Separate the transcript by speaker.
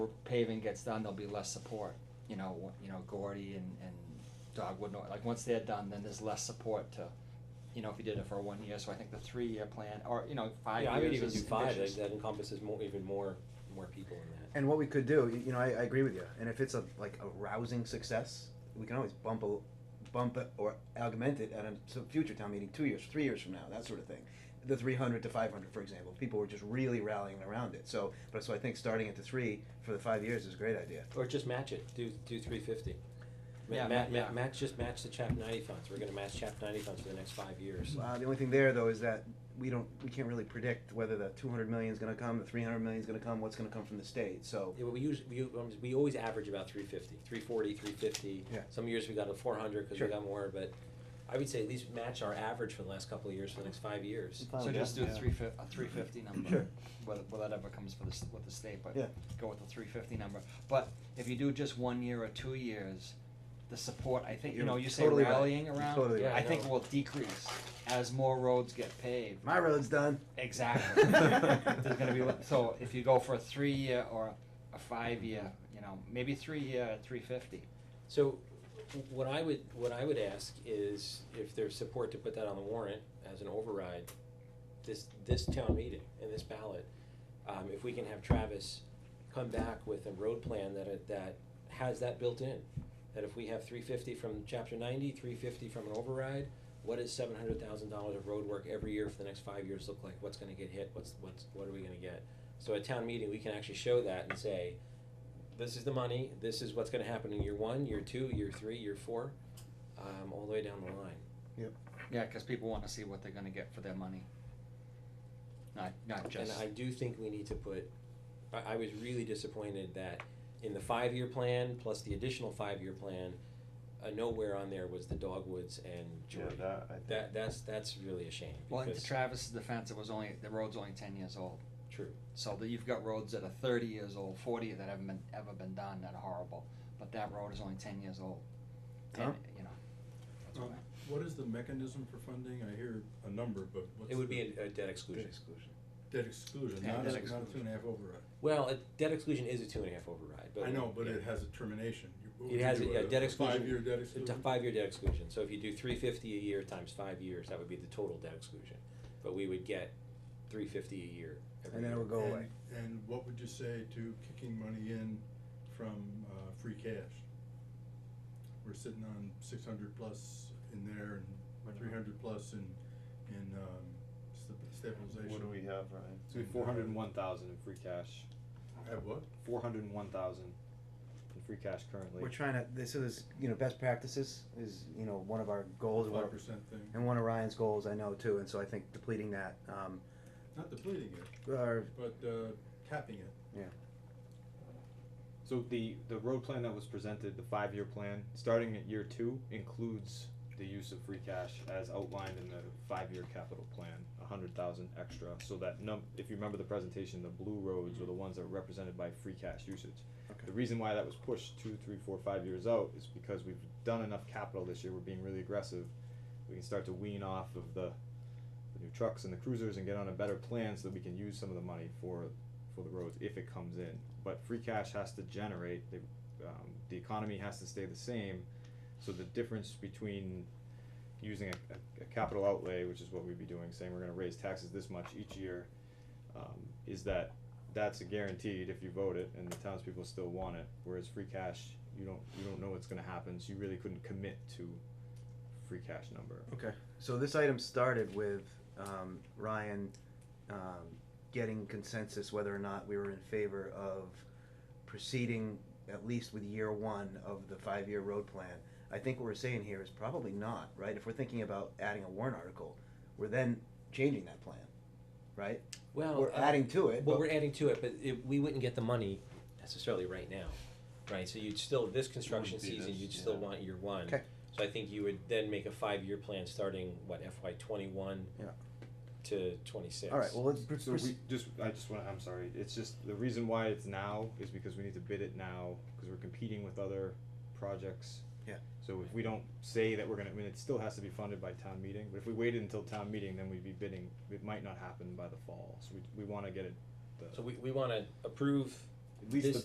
Speaker 1: paving gets done, there'll be less support, you know, wh- you know, Gordy and, and Dogwood, Nor- like, once they're done, then there's less support to, you know, if you did it for one year, so I think the three-year plan, or, you know, five
Speaker 2: Yeah, I would
Speaker 1: years
Speaker 2: even do
Speaker 1: is
Speaker 2: five,
Speaker 1: ambitious.
Speaker 2: that that encompasses more, even more, more people in that.
Speaker 3: And what we could do, y- you know, I, I agree with you. And if it's a like a rousing success, we can always bump a, bump it or augment it at a s- future town meeting, two years, three years from now, that sort of thing. The three hundred to five hundred, for example, people were just really rallying around it. So, but so I think starting at the three for the five years is a great idea.
Speaker 2: Or just match it, do, do three fifty.
Speaker 1: Yeah,
Speaker 2: Ma- ma-
Speaker 1: yeah.
Speaker 2: ma- match, just match the chapter ninety funds, we're gonna match chapter ninety funds for the next five years.
Speaker 3: Uh, the only thing there though is that we don't, we can't really predict whether the two hundred million is going to come, the three hundred million is going to come, what's going to come from the state. So,
Speaker 2: Yeah, but we use, we, u- um, we always average about three fifty, three forty, three fifty.
Speaker 3: Yeah.
Speaker 2: Some years we got a four hundred, cause we
Speaker 3: Sure.
Speaker 2: got more, but I would say at least match our average for the last couple of years, for the next five years.
Speaker 3: Fine
Speaker 1: So
Speaker 3: with
Speaker 1: just
Speaker 3: that,
Speaker 1: do a
Speaker 3: yeah.
Speaker 1: three fif- a three fifty number,
Speaker 3: Sure.
Speaker 1: whether, whether that ever comes for the, s- with the state, but
Speaker 3: Yeah.
Speaker 1: go with the three fifty number. But if you do just one year or two years, the support, I think, you
Speaker 3: You're
Speaker 1: know, you say
Speaker 3: totally right.
Speaker 1: rallying
Speaker 3: You're
Speaker 1: around,
Speaker 3: totally
Speaker 2: right.
Speaker 1: I think
Speaker 2: Yeah, I know.
Speaker 1: will decrease as more roads get paved.
Speaker 3: my road's done.
Speaker 1: Exactly. There's gonna be, le- so if you go for a three-year or a five-year, you know, maybe three-year at three fifty.
Speaker 2: So, w- what I would, what I would ask is if there's support to put that on the warrant as an override, this, this town meeting and this ballot, um, if we can have Travis come back with a road plan that, it- that has that built in. That if we have three fifty from chapter ninety, three fifty from an override, what is seven hundred thousand dollars of road work every year for the next five years look like? What's gonna get hit? What's, what's, what are we gonna get? So at town meeting, we can actually show that and say, this is the money, this is what's gonna happen in year one, year two, year three, year four, um, all the way down the line.
Speaker 1: Yeah, cause people wanna see what they're gonna get for their money. Not, not
Speaker 2: And
Speaker 1: just,
Speaker 2: I do think we need to put, I, I was really disappointed that in the five-year plan, plus the additional five-year plan, uh, nowhere on there was the Dogwoods and
Speaker 4: Yeah,
Speaker 2: Jordan.
Speaker 4: that, I think.
Speaker 2: That, that's, that's really a shame,
Speaker 1: well, and to
Speaker 2: because-
Speaker 1: Travis's defense, it was only, the road's only ten years old.
Speaker 2: true,
Speaker 1: So that you've got roads that are thirty years old, forty that haven't been, ever been done, that are horrible, but that road is only ten years old. And,
Speaker 3: Tom?
Speaker 1: you know, that's
Speaker 5: Um,
Speaker 1: why.
Speaker 5: What is the mechanism for funding? I hear a number, but what's?
Speaker 2: it would be
Speaker 5: the-
Speaker 2: a, a debt exclusion.
Speaker 5: Debt exclusion,
Speaker 1: Yeah,
Speaker 5: not a,
Speaker 1: debt
Speaker 5: not a
Speaker 1: exclusion.
Speaker 5: two and a half override.
Speaker 2: Well, a debt exclusion is a two and a half override, but.
Speaker 5: I know, but
Speaker 2: yeah.
Speaker 5: it has a termination. You- what would
Speaker 2: It
Speaker 5: you
Speaker 2: has a,
Speaker 5: do,
Speaker 2: yeah, debt exclusion.
Speaker 5: Five-year debt
Speaker 2: a t-
Speaker 5: exclusion?
Speaker 2: Five-year debt exclusion, so if you do three fifty a year times five years, that would be the total debt exclusion, but we would get three fifty a year every
Speaker 3: And then it
Speaker 2: year.
Speaker 3: would go
Speaker 5: And-
Speaker 3: away.
Speaker 5: And what would you say to kicking money in from, uh, free cash? We're sitting on six hundred plus in there and three hundred plus in, in, um, sta- stabilization.
Speaker 4: What do we have, Ryan?
Speaker 6: So we have four hundred and one thousand in free cash,
Speaker 5: Have what?
Speaker 6: four hundred and one thousand in free cash currently.
Speaker 3: We're trying to. This is you know best practices is you know one of our goals. one of-
Speaker 5: Five percent thing.
Speaker 3: And one of Ryan's goals, I know too, and so I think depleting that, um,
Speaker 5: Not depleting it,
Speaker 3: or,
Speaker 5: but, uh, tapping it.
Speaker 6: So the, the road plan that was presented, the five-year plan, starting at year two, includes the use of free cash as outlined in the five-year capital plan, a hundred thousand extra, so that num, if you remember the presentation, the blue roads were the ones that were represented by free cash usage.
Speaker 3: Okay.
Speaker 6: The reason why that was pushed two, three, four, five years out is because we've done enough capital this year, we're being really aggressive. We can start to wean off of the, the new trucks and the cruisers and get on a better plan so that we can use some of the money for, for the roads if it comes in. But free cash has to generate, the, um, the economy has to stay the same, so the difference between using a, a, a capital outlay, which is what we'd be doing, saying we're gonna raise taxes this much each year, um, is that that's a guaranteed if you vote it and the townspeople still want it, whereas free cash, you don't, you don't know what's gonna happen, so you really couldn't commit to free cash number.
Speaker 3: okay. So this item started with, um, Ryan, um, getting consensus whether or not we were in favor of proceeding at least with year one of the five-year road plan. I think what we're saying here is probably not, right? If we're thinking about adding a warrant article, we're then changing that plan, right?
Speaker 2: Well,
Speaker 3: We're
Speaker 2: uh,
Speaker 3: adding to it,
Speaker 2: Well,
Speaker 3: but-
Speaker 2: we're adding to it, but it, we wouldn't get the money necessarily right now, right? So you'd still, this construction
Speaker 4: Wouldn't be
Speaker 2: season,
Speaker 4: this,
Speaker 2: you'd still
Speaker 4: yeah.
Speaker 2: want year one.
Speaker 3: Okay.
Speaker 2: So I think you would then make a five-year plan starting, what, FY twenty-one?
Speaker 3: Yeah.
Speaker 2: To twenty-six.
Speaker 3: All right, well, let's.
Speaker 6: So we just, I just wanna, I'm sorry, it's just, the reason why it's now is because we need to bid it now, cause we're competing with other projects.
Speaker 3: Yeah.
Speaker 6: So if we don't say that we're gonna, I mean, it still has to be funded by town meeting, but if we waited until town meeting, then we'd be bidding, it might not happen by the fall, so we, we wanna get it, the,
Speaker 2: So we, we wanna approve
Speaker 6: at least the
Speaker 2: this